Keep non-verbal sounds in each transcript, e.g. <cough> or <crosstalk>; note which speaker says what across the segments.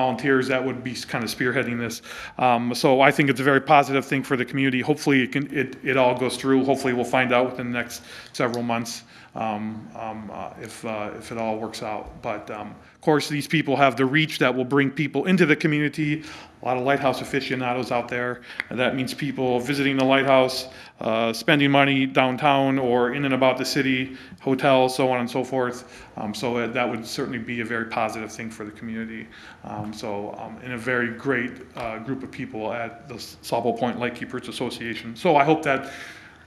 Speaker 1: volunteers that would be kind of spearheading this. Um, So I think it's a very positive thing for the community. Hopefully, it can, it, it all goes through. Hopefully, we'll find out within the next several months um, um, uh, if, uh, if it all works out. But um, of course, these people have the reach that will bring people into the community. A lot of lighthouse aficionados out there. And that means people visiting the lighthouse, uh, spending money downtown or in and about the city, hotels, so on and so forth. Um, So that- that would certainly be a very positive thing for the community. Um, So, um, and a very great uh, group of people at the Sawbo Point Lightkeepers Association. So I hope that,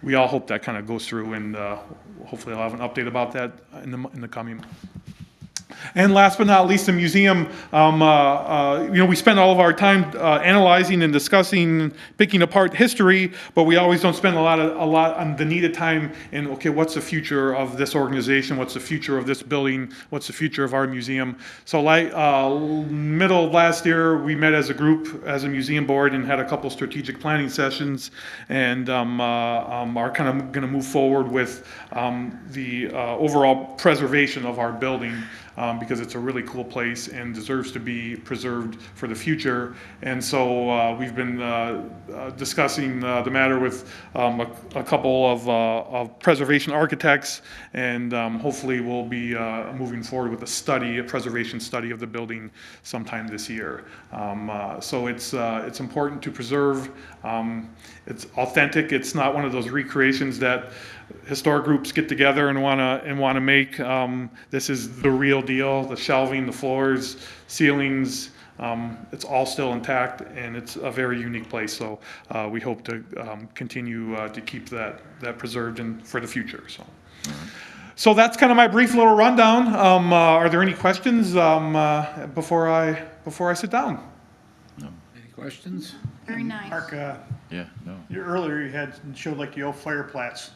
Speaker 1: we all hope that kind of goes through and uh, hopefully I'll have an update about that in the, in the coming and last but not least, the museum, um, uh, uh, you know, we spend all of our time uh, analyzing and discussing, picking apart history, but we always don't spend a lot of, a lot on the needed time in, okay, what's the future of this organization? What's the future of this building? What's the future of our museum? So like, uh, middle of last year, we met as a group, as a museum board, and had a couple strategic planning sessions, and um, uh, um, are kind of going to move forward with um, the uh, overall preservation of our building um, because it's a really cool place and deserves to be preserved for the future. And so uh, we've been uh, uh, discussing uh, the matter with um, a, a couple of, uh, of preservation architects, and um, hopefully we'll be uh, moving forward with a study, a preservation study of the building sometime this year. Um, uh, so it's uh, it's important to preserve. Um, it's authentic. It's not one of those recreations that historic groups get together and want to and want to make um, this is the real deal the shelving the floors ceilings um, it's all still intact and it's a very unique place so uh, we hope to um, continue uh, to keep that that preserved and for the future so so that's kind of my brief little rundown um, uh, are there any questions um, uh, before i before i sit down
Speaker 2: Any questions?
Speaker 3: Very nice.
Speaker 4: Mark, uh,
Speaker 2: Yeah, no.
Speaker 4: you- earlier you had, showed like the old flare plats.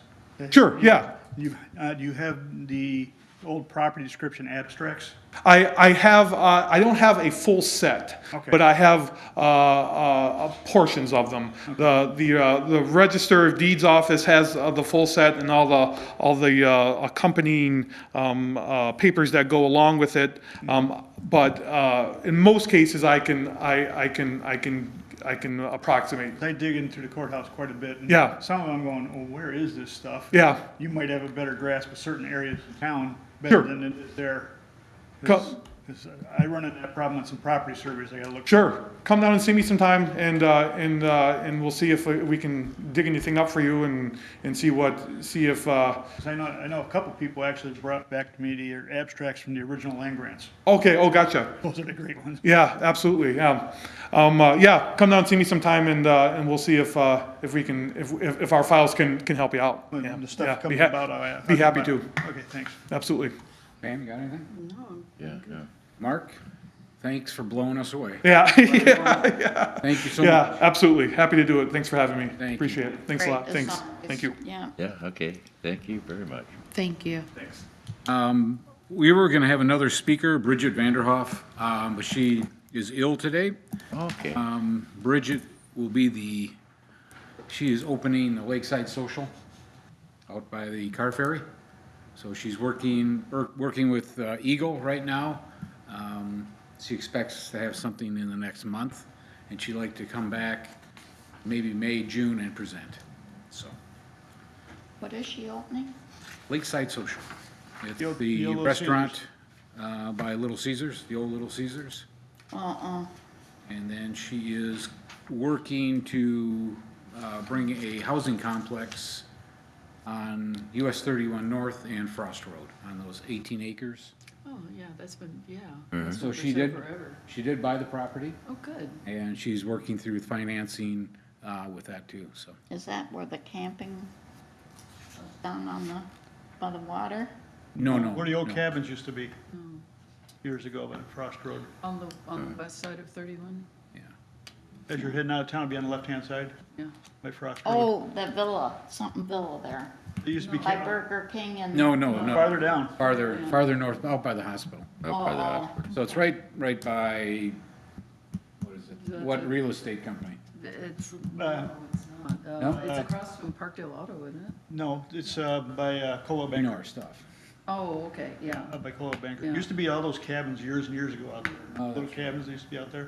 Speaker 1: sure yeah
Speaker 4: You, uh, do you have the old property description abstracts?
Speaker 1: I, I have, uh, I don't have a full set,
Speaker 4: Okay.
Speaker 1: but I have uh, uh, portions of them. The, the, uh, the Register of Deeds office has uh, the full set and all the, all the uh, accompanying um, uh, papers that go along with it. Um, But uh, in most cases, I can, I, I can, I can, I can approximate.
Speaker 4: They dig into the courthouse quite a bit. and
Speaker 1: Yeah.
Speaker 4: Some of them going, oh, where is this stuff?
Speaker 1: Yeah.
Speaker 4: You might have a better grasp of certain areas of town better
Speaker 1: Sure.
Speaker 4: than it is there.
Speaker 1: Co-
Speaker 4: 'Cause- 'cause I run into that problem on some property surveys, I gotta look.
Speaker 1: Sure, come down and see me sometime, and, uh, and, uh, and we'll see if we can dig anything up for you and, and see what, see if, uh,
Speaker 4: 'Cause I know, I know a couple people actually brought back to me the abstracts from the original land grants. <laughs>
Speaker 1: okay, oh, gotcha.
Speaker 4: Those are the great ones.
Speaker 1: Yeah, absolutely, yeah. Um, uh, yeah, come down and see me sometime and, uh, and we'll see if, uh, if we can, if, if if our files can, can help you out. Yeah,
Speaker 4: When the
Speaker 1: yeah,
Speaker 4: stuff
Speaker 1: be
Speaker 4: comes
Speaker 1: ha-
Speaker 4: about, I.
Speaker 1: Be happy to,
Speaker 4: Okay, thanks.
Speaker 1: absolutely.
Speaker 2: Pam, got anything?
Speaker 3: No.
Speaker 2: Yeah, yeah. Mark, thanks for blowing us away.
Speaker 1: Yeah, yeah, <laughs>
Speaker 2: Thank you so much.
Speaker 1: yeah, absolutely, happy to do it, thanks for having me,
Speaker 2: you.
Speaker 1: appreciate it, thanks a
Speaker 3: Great.
Speaker 1: lot,
Speaker 3: This
Speaker 1: thanks,
Speaker 3: song is-
Speaker 1: thank you.
Speaker 3: Yeah,
Speaker 5: Yeah, okay, thank you very much.
Speaker 3: thank you.
Speaker 2: Um, we were gonna have another speaker, Bridget Vanderhoff, um, but she is ill today.
Speaker 5: Okay,
Speaker 2: Um, Bridget will be the, she is opening the Lakeside Social out by the car ferry. So she's working, er, working with uh, Eagle right now. Um, She expects to have something in the next month, and she'd like to come back maybe May, June and present. So
Speaker 3: What is she opening?
Speaker 2: Lakeside Social. It's
Speaker 4: The old-
Speaker 2: the
Speaker 4: the old Little
Speaker 2: restaurant uh, by Little Caesar's, the old Little Caesar's.
Speaker 3: Uh-uh.
Speaker 2: And then she is working to uh, bring a housing complex on US 31 North and Frost Road, on those 18 acres.
Speaker 6: Oh, yeah, that's been, yeah. that's
Speaker 2: So
Speaker 6: been
Speaker 2: she
Speaker 6: for
Speaker 2: did,
Speaker 6: forever.
Speaker 2: she did buy the property,
Speaker 6: Oh, good.
Speaker 2: and she's working through financing uh, with that too, so.
Speaker 3: Is that where the camping was down on the, by the water?
Speaker 2: No, no.
Speaker 4: Where the old
Speaker 2: no.
Speaker 4: cabins used to be years ago by Frost Road.
Speaker 6: On the, on the
Speaker 2: Mm.
Speaker 6: west side of 31,
Speaker 2: Yeah.
Speaker 4: As you're heading out of town, be on the left-hand side
Speaker 6: yeah.
Speaker 4: by Frost Road.
Speaker 3: Oh, the villa, something villa there,
Speaker 4: It used to be
Speaker 3: by
Speaker 4: ca-
Speaker 3: Burger King and.
Speaker 2: No, no, no,
Speaker 4: Uh, farther down.
Speaker 2: farther, farther north, out by the hospital.
Speaker 5: up by the
Speaker 3: Oh.
Speaker 5: hospital.
Speaker 2: So it's right, right by, what is it? What real estate company?
Speaker 6: It's,
Speaker 4: Uh,
Speaker 6: no, it's not. Uh,
Speaker 2: No?
Speaker 6: It's across from Parkdale Auto, isn't it?
Speaker 4: No, it's uh, by uh, Cola Bank.
Speaker 2: Nor stuff.
Speaker 6: Oh, okay, yeah.
Speaker 4: Up by Cold Banker.
Speaker 6: Yeah.
Speaker 4: Used to be all those cabins years and years ago out there.
Speaker 2: Oh,
Speaker 4: Little
Speaker 2: that's
Speaker 4: cabins that used to be out there.